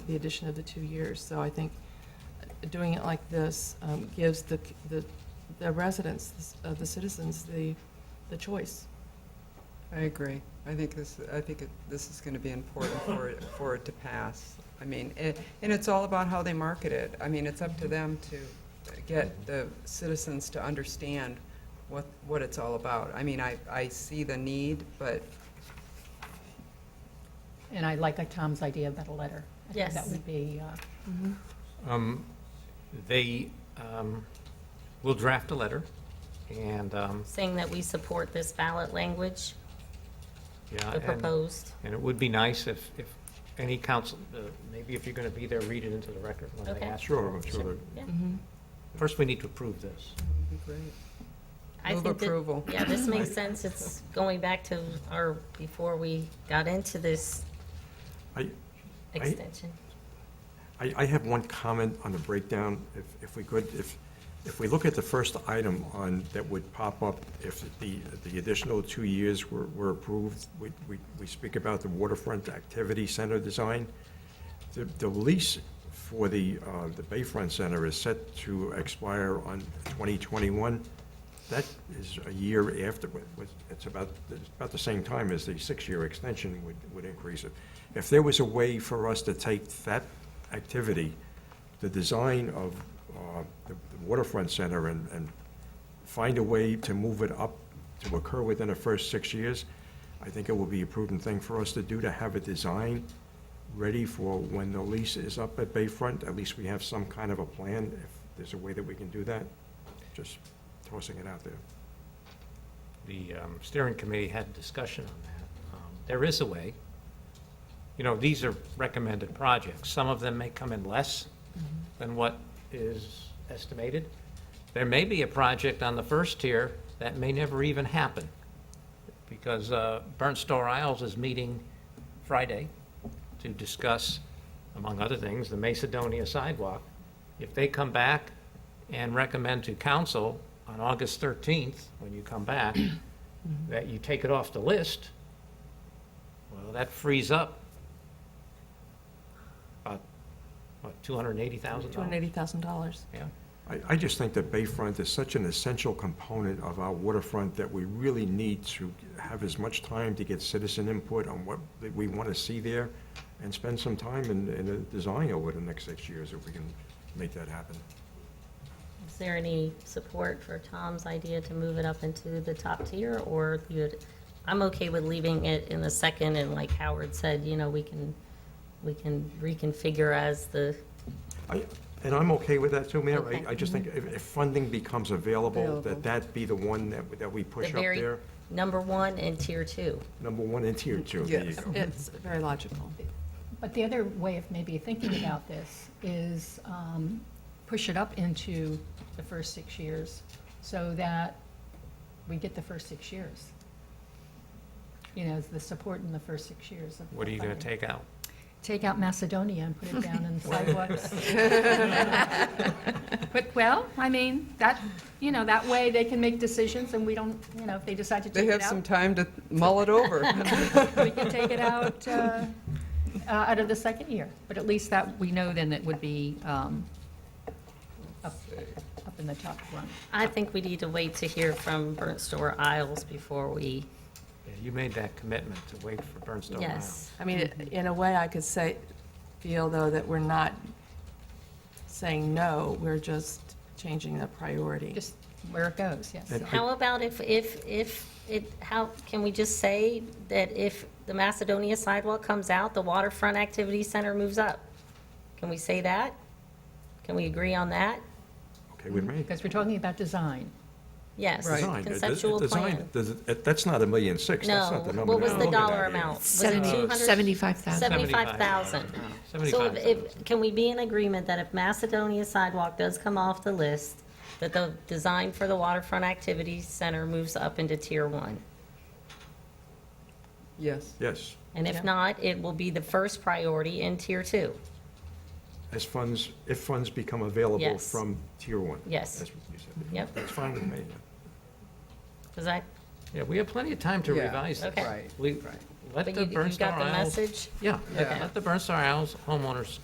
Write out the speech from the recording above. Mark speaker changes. Speaker 1: the addition of the two years. So I think doing it like this um, gives the, the the residents, uh, the citizens, the, the choice.
Speaker 2: I agree. I think this, I think it- this is going to be important for it, for it to pass. I mean, a- and it's all about how they market it. I mean, it's up to them to get the citizens to understand what, what it's all about. I mean, I, I see the need, but
Speaker 3: And I like uh, Tom's idea about a letter. I think
Speaker 4: Yes.
Speaker 3: That would be, uh,
Speaker 5: Um, They um, will draft a letter, and, um,
Speaker 4: saying that we support this ballot language,
Speaker 5: yeah,
Speaker 4: the
Speaker 5: and,
Speaker 4: proposed.
Speaker 5: and it would be nice if, if any council, uh, maybe if you're going to be there, read it into the record when they
Speaker 4: Okay.
Speaker 5: ask.
Speaker 6: Sure,
Speaker 5: for it.
Speaker 6: sure. Mm-hmm.
Speaker 4: Yeah.
Speaker 5: First, we need to approve this.
Speaker 2: it would be great.
Speaker 4: I
Speaker 2: Move
Speaker 4: think that-
Speaker 2: approval.
Speaker 4: Yeah, this makes sense. It's going back to our, before we got into this
Speaker 6: I, I-
Speaker 4: extension.
Speaker 6: I, I have one comment on the breakdown, if, if we could, if, if we look at the first item on, that would pop up if the, the additional two years were, were approved, we, we, we speak about the waterfront activity center design. The, the lease for the, uh, the Bayfront Center is set to expire on twenty twenty-one. That is a year after, what- what- it's about, it's about the same time as the six-year extension would, would increase it. If there was a way for us to take that activity, the design of uh, the the waterfront center and, and find a way to move it up to occur within the first six years, I think it would be a prudent thing for us to do, to have a design ready for when the lease is up at Bayfront. At least we have some kind of a plan, if there's a way that we can do that. Just tossing it out there.
Speaker 5: The um, steering committee had a discussion on that. Um, There is a way. You know, these are recommended projects. Some of them may come in less
Speaker 4: Mm-hmm.
Speaker 5: than what is estimated. There may be a project on the first tier that may never even happen, because uh, Burnt Store Isles is meeting Friday to discuss, among other things, the Macedonia sidewalk. If they come back and recommend to council on August 13th, when you come back, that you take it off the list, well, that frees up about, what, $280,000?
Speaker 1: $280,000.
Speaker 5: Yeah.
Speaker 6: I, I just think that Bayfront is such an essential component of our waterfront that we really need to have as much time to get citizen input on what that we want to see there and spend some time in, in the design over the next six years if we can make that happen.
Speaker 4: Is there any support for Tom's idea to move it up into the top tier, or you'd, I'm okay with leaving it in the second, and like Howard said, you know, we can, we can reconfigure as the,
Speaker 6: I, and I'm okay with that too, Mayor.
Speaker 4: Okay.
Speaker 6: I, I just think if, if funding becomes available,
Speaker 2: Mm-hmm. Available.
Speaker 6: that that be the one that, that we
Speaker 4: the
Speaker 6: push up
Speaker 4: very
Speaker 6: there.
Speaker 4: number one and tier two.
Speaker 6: Number one and tier two, there you
Speaker 2: Yes.
Speaker 6: go.
Speaker 1: It's very logical.
Speaker 3: but the other way of maybe thinking about this is um, push it up into the first six years so that we get the first six years. You know, the support in the first six years of.
Speaker 5: What are you going to
Speaker 3: funding.
Speaker 5: take out?
Speaker 3: Take out Macedonia and put it down in the sidewalks. But, well, I mean, that, you know, that way they can make decisions and we don't, you know, if they decide to
Speaker 2: They
Speaker 3: take
Speaker 2: have
Speaker 3: it
Speaker 2: some
Speaker 3: out,
Speaker 2: time to mull it over.
Speaker 3: we can take it out, uh, uh, out of the second year. But at least that, we know then it would be um, up, up in the top rung.
Speaker 4: I think we need to wait to hear from Burnt Store Isles before we,
Speaker 5: Yeah, You made that commitment to wait for
Speaker 6: Oh,
Speaker 5: Bernstone Island.
Speaker 4: yes.
Speaker 1: I mean, in a way, I could say, feel though that we're not saying no, we're just changing the priority.
Speaker 3: Just where it goes, yes.
Speaker 6: And I-
Speaker 4: How about if, if, if, it, how, can we just say that if the Macedonia sidewalk comes out, the waterfront activity center moves up? Can we say that? Can we agree on that?
Speaker 6: Okay with me?
Speaker 3: Because we're talking about design.
Speaker 4: Yes,
Speaker 2: Right.
Speaker 6: Design, it- it-
Speaker 4: conceptual
Speaker 6: design,
Speaker 4: plan.
Speaker 6: does it- it- That's not a million six, that's
Speaker 4: No,
Speaker 6: not the number.
Speaker 4: what
Speaker 6: that
Speaker 4: was
Speaker 6: we're
Speaker 4: the
Speaker 6: looking at
Speaker 4: dollar
Speaker 6: here.
Speaker 4: amount? Was it two
Speaker 7: Seventy-
Speaker 4: hundred?
Speaker 7: 75,000.
Speaker 4: Seventy-five thousand. So if- if, can we be in agreement that if Macedonia sidewalk does come off the list, that the design for the waterfront activity center moves up into tier one?
Speaker 2: Yes.
Speaker 6: Yes,
Speaker 4: And if not, it will be the first priority in tier two.
Speaker 6: as funds, if funds become available
Speaker 4: Yes.
Speaker 6: from tier one.
Speaker 4: Yes.
Speaker 6: That's what you said.
Speaker 4: Yep.
Speaker 6: That's fine with me.
Speaker 4: Is that,
Speaker 5: Yeah, we have plenty of time to
Speaker 2: Yeah,
Speaker 5: revise this.
Speaker 4: okay.
Speaker 2: Right,
Speaker 5: We,
Speaker 2: right.
Speaker 5: let
Speaker 4: but
Speaker 5: the
Speaker 4: you, you
Speaker 5: Bernstone
Speaker 4: got the
Speaker 5: Isles.
Speaker 4: message?
Speaker 5: Yeah,
Speaker 2: Yeah.
Speaker 5: let the Bernstone Isles homeowners